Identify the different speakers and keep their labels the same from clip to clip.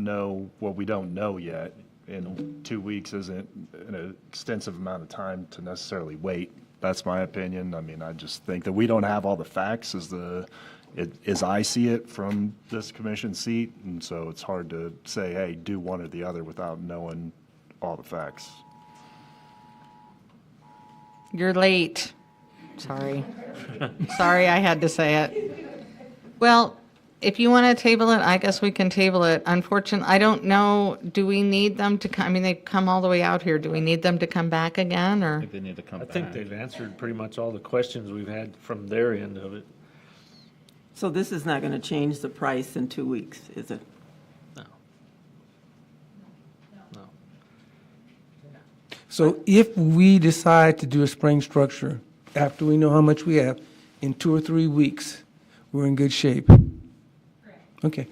Speaker 1: know what we don't know yet, and two weeks isn't an extensive amount of time to necessarily wait. That's my opinion. I mean, I just think that we don't have all the facts as the, it- as I see it from this commission seat, and so it's hard to say, hey, do one or the other without knowing all the facts.
Speaker 2: You're late. Sorry. Sorry I had to say it. Well, if you want to table it, I guess we can table it. Unfortunately, I don't know, do we need them to, co- I mean, they've come all the way out here. Do we need them to come back again or?
Speaker 3: They need to come
Speaker 4: I
Speaker 3: back.
Speaker 4: think they've answered pretty much all the questions we've had from their end of it.
Speaker 5: So this is not going to change the price in two weeks, is it?
Speaker 4: No. No.
Speaker 6: So if we decide to do a spring structure, after we know how much we have, in two or three weeks, we're in good shape. Okay.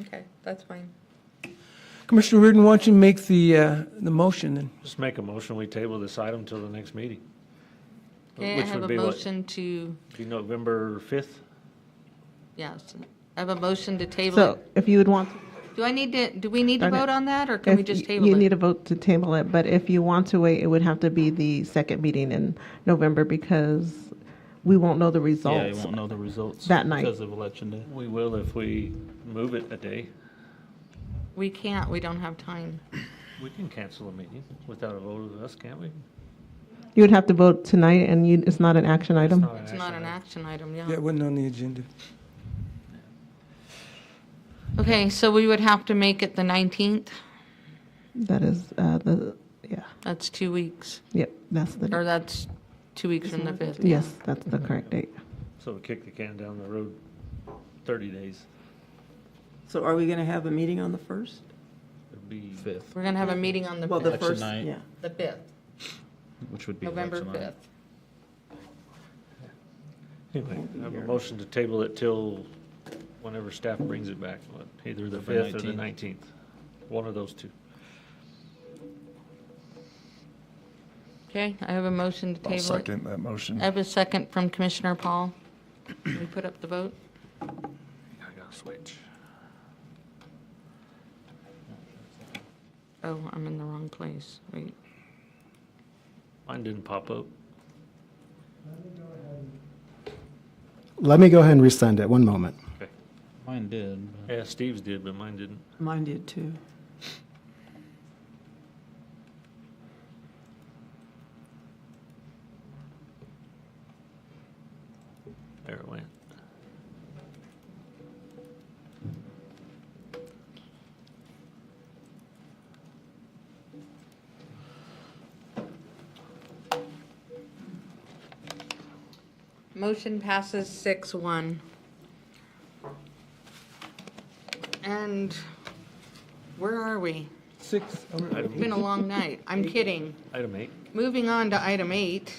Speaker 2: Okay, that's fine.
Speaker 6: Commissioner Reardon, why don't you make the, uh, the motion then?
Speaker 4: Just make a motion, we table this item till the next meeting.
Speaker 2: Okay, I
Speaker 4: Which
Speaker 2: have
Speaker 4: would
Speaker 2: a
Speaker 4: be what?
Speaker 2: motion to,
Speaker 4: Be November 5th?
Speaker 2: yes, I have a motion to table
Speaker 7: So
Speaker 2: it.
Speaker 7: if you would want,
Speaker 2: Do I need to, do we need to
Speaker 7: Darn it.
Speaker 2: vote on that or can we just
Speaker 7: if you-
Speaker 2: table
Speaker 7: you need
Speaker 2: it?
Speaker 7: a vote to table it, but if you want to wait, it would have to be the second meeting in November because we won't know the
Speaker 3: Yeah, you
Speaker 7: results.
Speaker 3: won't know the results.
Speaker 7: That night.
Speaker 3: Because of election day.
Speaker 4: We will if we move it a day.
Speaker 2: We can't, we don't have time.
Speaker 4: We can cancel a meeting without a vote of us, can't we?
Speaker 7: You would have to vote tonight and you, it's not an action item.
Speaker 4: Oh,
Speaker 2: It's not an action item,
Speaker 6: Yeah, it wasn't on the agenda.
Speaker 2: Okay, so we would have to make it the 19th.
Speaker 7: That is, uh, the, yeah,
Speaker 2: That's two weeks,
Speaker 7: yep, that's
Speaker 2: or
Speaker 7: the,
Speaker 2: that's two weeks from the 5th. yeah.
Speaker 7: yes, that's the correct date.
Speaker 4: So we kick the can down the road 30 days.
Speaker 5: So are we going to have a meeting on the first?
Speaker 4: It'd be
Speaker 3: Fifth,
Speaker 2: We're going to have a meeting on the
Speaker 5: Well,
Speaker 2: 5th,
Speaker 5: the
Speaker 3: Election
Speaker 5: first,
Speaker 3: night.
Speaker 5: yeah.
Speaker 2: the 5th,
Speaker 3: which would be
Speaker 2: November
Speaker 3: election
Speaker 2: 5th.
Speaker 3: night.
Speaker 4: Anyway, I have a motion to table it till whenever staff brings it back, what, either the
Speaker 3: November
Speaker 4: 5th or the 19th. One of those two.
Speaker 2: Okay, I have a motion to
Speaker 1: I'll
Speaker 2: table it.
Speaker 1: second that motion.
Speaker 2: I have a second from Commissioner Paul. Can we put up the vote?
Speaker 4: I gotta switch.
Speaker 2: Oh, I'm in the wrong place. Wait.
Speaker 4: Mine didn't pop up.
Speaker 8: Let me go ahead and resend it. One moment.
Speaker 4: Okay.
Speaker 3: Mine did, but
Speaker 4: Yeah, Steve's did, but mine didn't.
Speaker 5: Mine did too.
Speaker 4: There it went.
Speaker 2: Motion passes 6-1. And where are we?
Speaker 6: Six, um,
Speaker 2: It's been a long night. I'm kidding.
Speaker 4: Item eight.
Speaker 2: Moving on to item eight,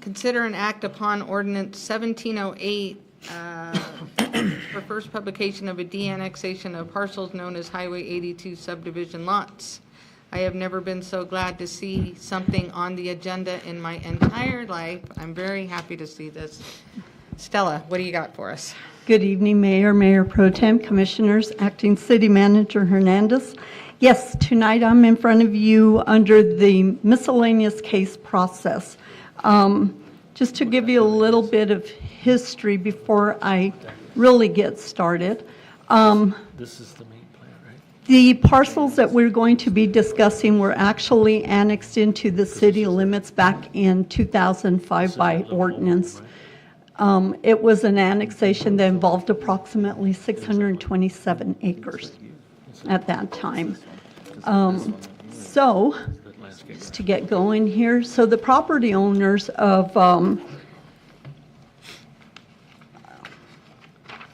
Speaker 2: consider and act upon ordinance 1708 uh, for first publication of a de-annexation of parcels known as Highway 82 subdivision lots. I have never been so glad to see something on the agenda in my entire life. I'm very happy to see this. Stella, what do you got for us?
Speaker 9: Good evening, Mayor, Mayor Pro Tem, Commissioners, Acting City Manager Hernandez. Yes, tonight I'm in front of you under the miscellaneous case process. Um, Just to give you a little bit of history before I really get started.
Speaker 4: This is the meat plant, right?
Speaker 9: The parcels that we're going to be discussing were actually annexed into the city limits back in 2005 by ordinance. Um, It was an annexation that involved approximately 627 acres at that time. Um, So,
Speaker 4: The landscape.
Speaker 9: just to get going here, so the property owners of um,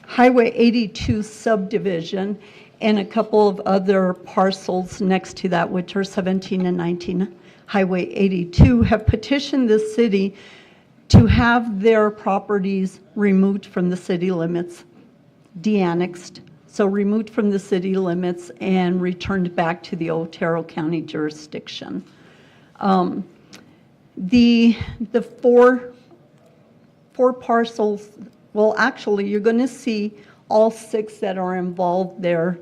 Speaker 9: Highway 82 subdivision and a couple of other parcels next to that, which are 17 and 19 Highway 82, have petitioned the city to have their properties removed from the city limits, de-annexed, so removed from the city limits and returned back to the Otero County jurisdiction. Um, The, the four four parcels, well, actually, you're going to see all six that are involved there